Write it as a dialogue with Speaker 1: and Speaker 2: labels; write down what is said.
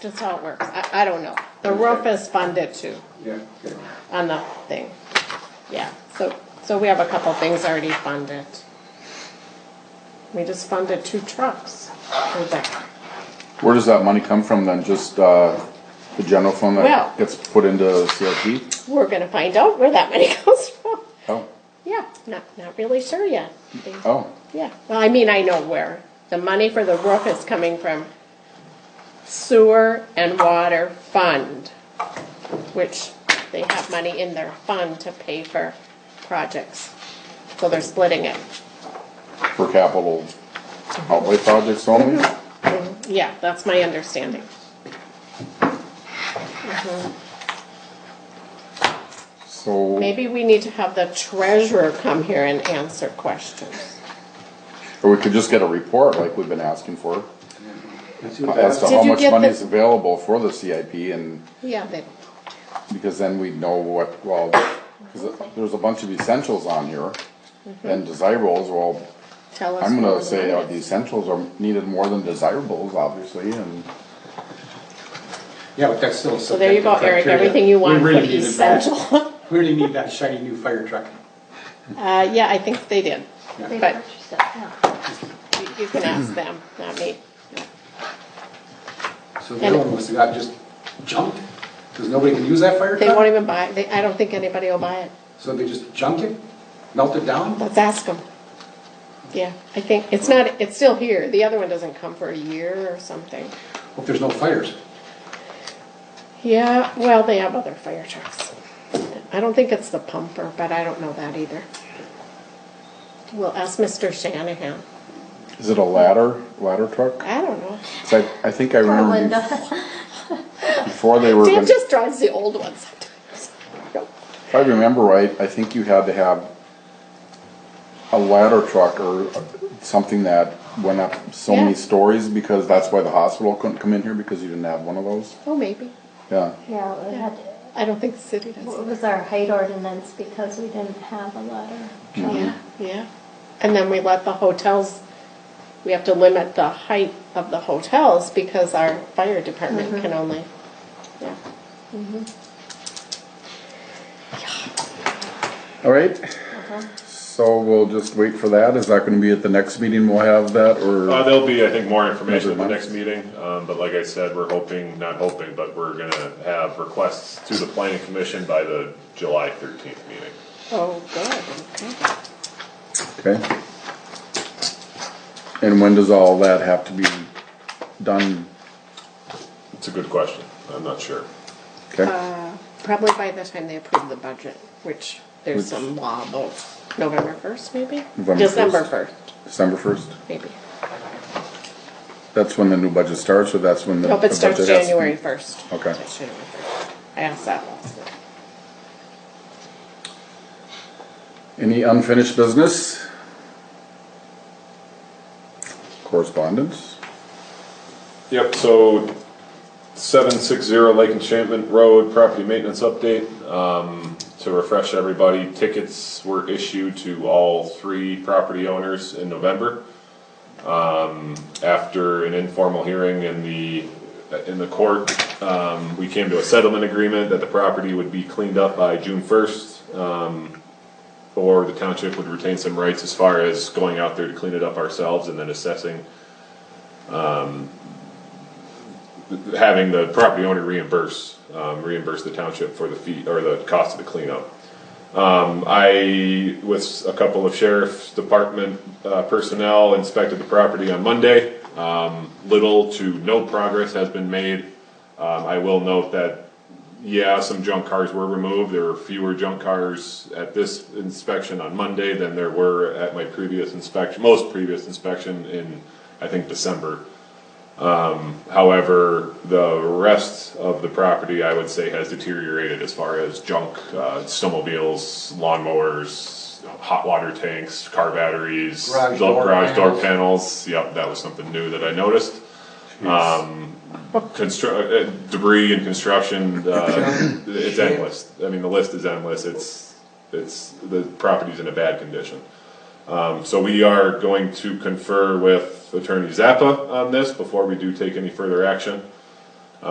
Speaker 1: That's how it works. I, I don't know. The roof is funded too
Speaker 2: Yeah, okay.
Speaker 1: on the thing. Yeah, so, so we have a couple things already funded. We just funded two trucks for that.
Speaker 3: Where does that money come from then? Just, uh, the general fund
Speaker 1: Well-
Speaker 3: that gets put into CIP?
Speaker 1: We're gonna find out where that money comes from.
Speaker 3: Oh,
Speaker 1: Yeah, not, not really sure yet.
Speaker 3: oh,
Speaker 1: Yeah, well, I mean, I know where. The money for the roof is coming from sewer and water fund, which they have money in their fund to pay for projects. So they're splitting it.
Speaker 3: for capital outlay projects only?
Speaker 1: Mm-hmm. Yeah, that's my understanding.
Speaker 3: So,
Speaker 1: Maybe we need to have the treasurer come here and answer questions.
Speaker 3: or we could just get a report like we've been asking for
Speaker 2: That's what
Speaker 3: as to
Speaker 1: Did
Speaker 3: how
Speaker 1: you
Speaker 3: much
Speaker 1: get
Speaker 3: money
Speaker 1: the-
Speaker 3: is available for the CIP and,
Speaker 1: Yeah, they,
Speaker 3: because then we'd know what, well, cause there's a bunch of essentials on here.
Speaker 1: Mm-hmm.
Speaker 3: And desirables, well,
Speaker 1: tell us.
Speaker 3: I'm
Speaker 1: more
Speaker 3: gonna say uh,
Speaker 1: about
Speaker 3: the
Speaker 1: it.
Speaker 3: essentials are needed more than desirables, obviously, and.
Speaker 2: Yeah, but that's still.
Speaker 1: So there you go, Eric, everything you want, put essential.
Speaker 2: We really need that shiny new fire truck.
Speaker 1: Uh, yeah, I think they did.
Speaker 2: Yeah.
Speaker 4: They
Speaker 1: But-
Speaker 4: purchased it, yeah.
Speaker 1: You- You can ask them, not me.
Speaker 2: So the other one must have got just junked, because nobody can use that fire
Speaker 1: They won't
Speaker 2: truck?
Speaker 1: even buy, they, I don't think anybody will buy it.
Speaker 2: So they just junk it, melt it down?
Speaker 1: Let's ask them. Yeah, I think, it's not, it's still here. The other one doesn't come for a year or something.
Speaker 2: Hope there's no fires.
Speaker 1: Yeah, well, they have other fire trucks. I don't think it's the pumper, but I don't know that either. We'll ask Mr. Shanahan.
Speaker 3: Is it a ladder, ladder truck?
Speaker 1: I don't know.
Speaker 3: 'Cause I, I think I remember bef-
Speaker 4: Linda,
Speaker 3: before they were,
Speaker 1: Dan
Speaker 3: gonna-
Speaker 1: just drives the old ones sometimes. Nope.
Speaker 3: if I remember right, I think you had to have a ladder truck or a- something that went up so many
Speaker 1: Yeah.
Speaker 3: stories because that's why the hospital couldn't come in here because you didn't have one of those.
Speaker 1: Oh, maybe.
Speaker 3: Yeah,
Speaker 4: yeah, it had,
Speaker 1: I don't think the city
Speaker 4: what
Speaker 1: does.
Speaker 4: was our height ordinance because we didn't have a letter.
Speaker 1: Yeah, yeah. And then we let the hotels, we have to limit the height of the hotels because our fire department can only, yeah.
Speaker 3: all right.
Speaker 1: Uh-huh.
Speaker 3: So we'll just wait for that. Is that gonna be at the next meeting we'll have that or?
Speaker 5: Uh, there'll be, I think, more information at the
Speaker 3: Another
Speaker 5: next meeting, um, but like I said, we're hoping, not hoping, but we're gonna have requests to the planning commission by the July thirteenth meeting.
Speaker 1: Oh, good, okay.
Speaker 3: Okay. And when does all that have to be done?
Speaker 5: It's a good question, I'm not sure.
Speaker 3: Okay,
Speaker 1: Uh, Probably by the time they approve the budget, which there's
Speaker 3: Which-
Speaker 1: some law about November first, maybe?
Speaker 3: November
Speaker 1: December first,
Speaker 3: December first?
Speaker 1: maybe.
Speaker 3: That's when the new budget starts, or that's when the?
Speaker 1: Nope,
Speaker 3: the
Speaker 1: it starts
Speaker 3: budget has to be-
Speaker 1: January first.
Speaker 3: Okay.
Speaker 1: I asked that last night.
Speaker 3: Any unfinished business? Correspondence?
Speaker 5: Yep, so seven six zero Lake Enchantment Road, property maintenance update. Um, to refresh everybody, tickets were issued to all three property owners in November. Um, after an informal hearing in the, in the court, um, we came to a settlement agreement that the property would be cleaned up by June first. um, Or the township would retain some rights as far as going out there to clean it up ourselves and then assessing having the property owner reimburse, um, reimburse the township for the fee, or the cost of the cleanup. Um, I, with a couple of sheriff's department, uh, personnel inspected the property on Monday. Um, little to no progress has been made. Um, I will note that, yeah, some junk cars were removed, there were fewer junk cars at this inspection on Monday than there were at my previous inspection, most previous inspection in, I think, December. Um, However, the rest of the property, I would say, has deteriorated as far as junk, uh, snowmobiles, lawnmowers, hot water tanks, car batteries,
Speaker 2: Garage
Speaker 5: door-
Speaker 2: door
Speaker 5: garage door
Speaker 2: panels.
Speaker 5: panels. Yep, that was something new that I noticed. Um, constru- uh, debris and construction, uh, it's endless. I mean, the list is endless. It's, it's, the property's in a bad condition. Um, So we are going to confer with Attorney Zappa on this before we do take any further action.